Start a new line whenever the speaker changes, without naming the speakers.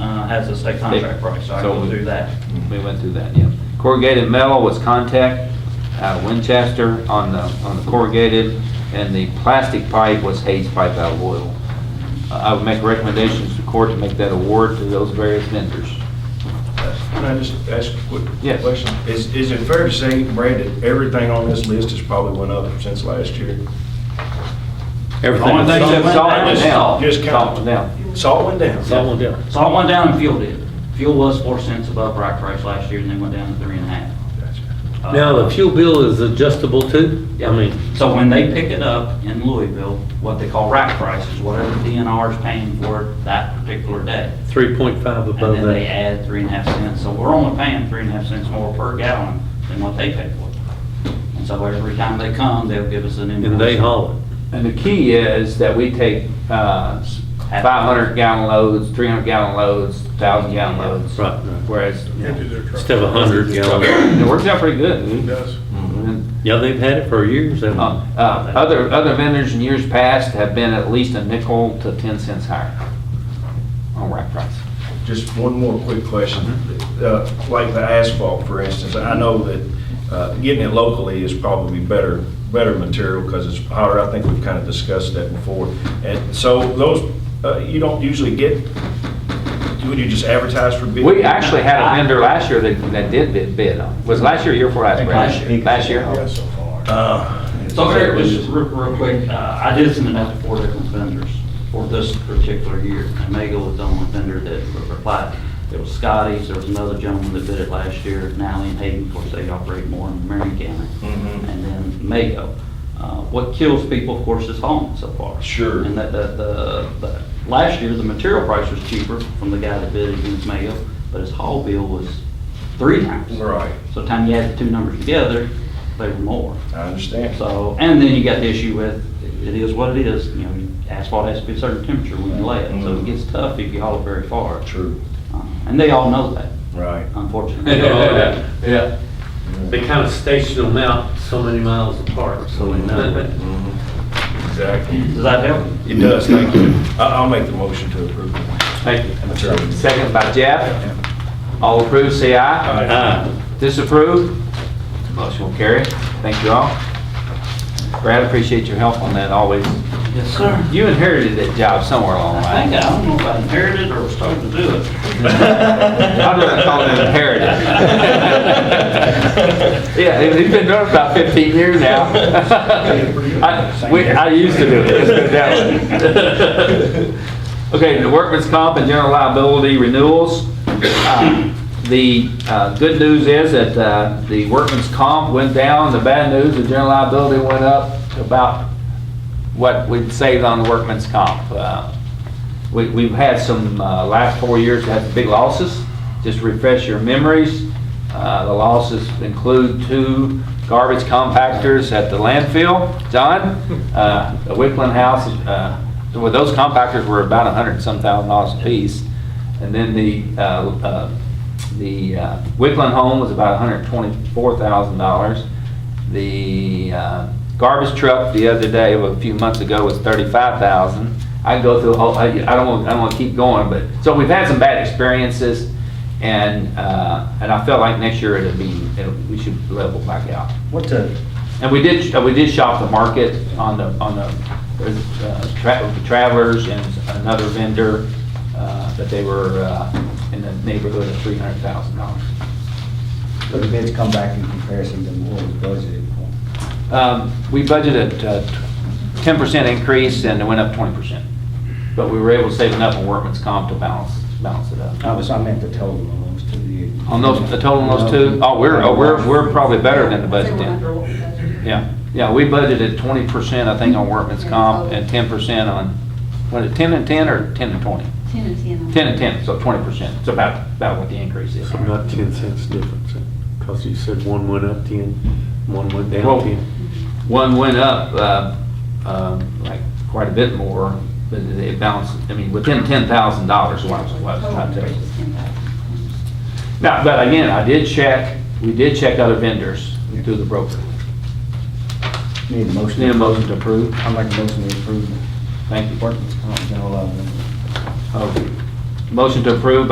uh, has a state contract price, so I
So
go
we-
through that.
We went through that, yeah. Corrugated metal was contact, uh, Winchester on the, on the corrugated, and the plastic pipe was Hayes Pipe out of oil. Uh, I would make recommendations to court to make that award to those various vendors.
Can I just ask a quick
Yes.
question? Is, is it fair to say, Brad, that everything on this list has probably went up since last year?
Everything.
Only thing-
Except salt and now.
Just count.
Salt and now.
Salt went down.
That one down.
So I went down and fuel did. Fuel was four cents above rack price last year, and then went down to three and a half.
Gotcha.
Uh,
Now, the fuel bill is adjustable too? I mean,
So when they pick it up in Louisville, what they call rack price is whatever DNR is paying for it that particular day.
3.5
And
above
then they
that.
add three and a half cents, so we're only paying three and a half cents more per gallon than what they pay for. it. And so every time they come, they'll give us an invoice.
And they haul it.
And the key is that we take uh, 500 gallon loads, 300 gallon loads, 1,000 gallon loads.
Right, right.
Whereas,
Instead of 100 gallon.
it works out pretty good.
does.
And,
Yeah, they've had it for years, haven't
uh,
they?
uh, Other, other vendors in years past have been at least a nickel to 10 cents higher on rack price.
Just one more quick question. Uh, Like the asphalt, for instance, I know that uh, getting it locally is probably better, better material because it's hotter. I think we've kind of discussed that before. And so those, uh, you don't usually get, would you just advertise for bid?
We actually had a vendor last year that, that did bid, bid on, was last year, or year before last? Brad?
Last year.
Last year?
Uh,
So Eric, just real, real quick, uh, I did send it out to four different vendors for this particular year. And Mago was the only vendor that replied. There was Scotty's, there was another gentleman that bid it last year, Nally and Hayden, of course, they operate more in Marion County.
Mhm.
And then Mago. Uh, What kills people, of course, is home so far.
Sure.
And that, the, the, the- last year, the material price was cheaper from the guy that bid against Mago, but his haul bill was three times.
Right,
So time you add the two numbers together, they were more.
I understand.
So, and then you got the issue with, it is what it is, you know, asphalt has to be a certain temperature when you lay it, so it gets tough if you haul it very far.
True,
Uh, And they all know that,
right.
Uh-huh. unfortunately.
Yeah. They kind of station them out so many miles apart, so we know.
Exactly.
Does that help?
It does, thank you. I- I'll make the motion to approve.
Thank you. Second by Jeff. All approved, say aye.
Ah,
Disapproved? Motion will carry. Thank you all. Brad, appreciate your help on that always.
Yes, sir.
You inherited that job somewhere along the
I
line.
think, I don't know if I inherited it or was told to do it.
I'd rather call it inherited. Yeah, it- it's been doing it about 15 years now. I we- I used to do it. It's been that way. Okay, the workman's comp and general liability renewals. Uh, The uh, good news is that uh, the workman's comp went down, the bad news, the general liability went up about what we'd saved on the workman's comp. Uh, we- We've had some, uh, last four years, we had some big losses. Just refresh your memories. Uh, The losses include two garbage compactors at the landfill. John, uh, the Wickland House, uh, well, those compactors were about a hundred and some thousand dollars apiece. And then the, uh, uh, the uh, Wickland home was about $124,000. The uh, garbage truck the other day, a few months ago, was thirty-five thousand. I can go through, a whole- I I don't want, I don't want to keep going, but, so we've had some bad experiences, and, uh, and I felt like next year it'll be, it'll- we should level back out.
What the,
And we did, uh, we did shop the market on the, on the uh, tra- Travelers and another vendor, uh, but they were uh, in the neighborhood of three hundred thousand dollars.
so the bids come back in comparison to what was budgeted for?
Um, We budgeted ten percent increase and it went up twenty percent. But we were able to save enough on workman's comp to balance, balance it up.
I was, I meant the total on those two. you-
On those, the total on those two, oh, we're, oh, we're, we're probably better than the budget then. Yeah, yeah, we budgeted twenty percent, I think, on workman's comp and ten percent on, what, is it, ten and ten or ten and twenty?
Ten and ten.
Ten and ten, so twenty percent. It's about, about what the increase is.
So not 10 cents difference, because you said one went up 10, one went
Well-
down 10.
One went up, uh, um, like quite a bit more, but it balanced, I mean, within ten thousand dollars, what I was, what I was trying to tell you. Now, but again, I did check, we did check other vendors through the broker.
Need a motion?
Need a motion to approve?
I'll make a motion to approve
Thank you.
workman's comp general liability.
Oh, Motion to approve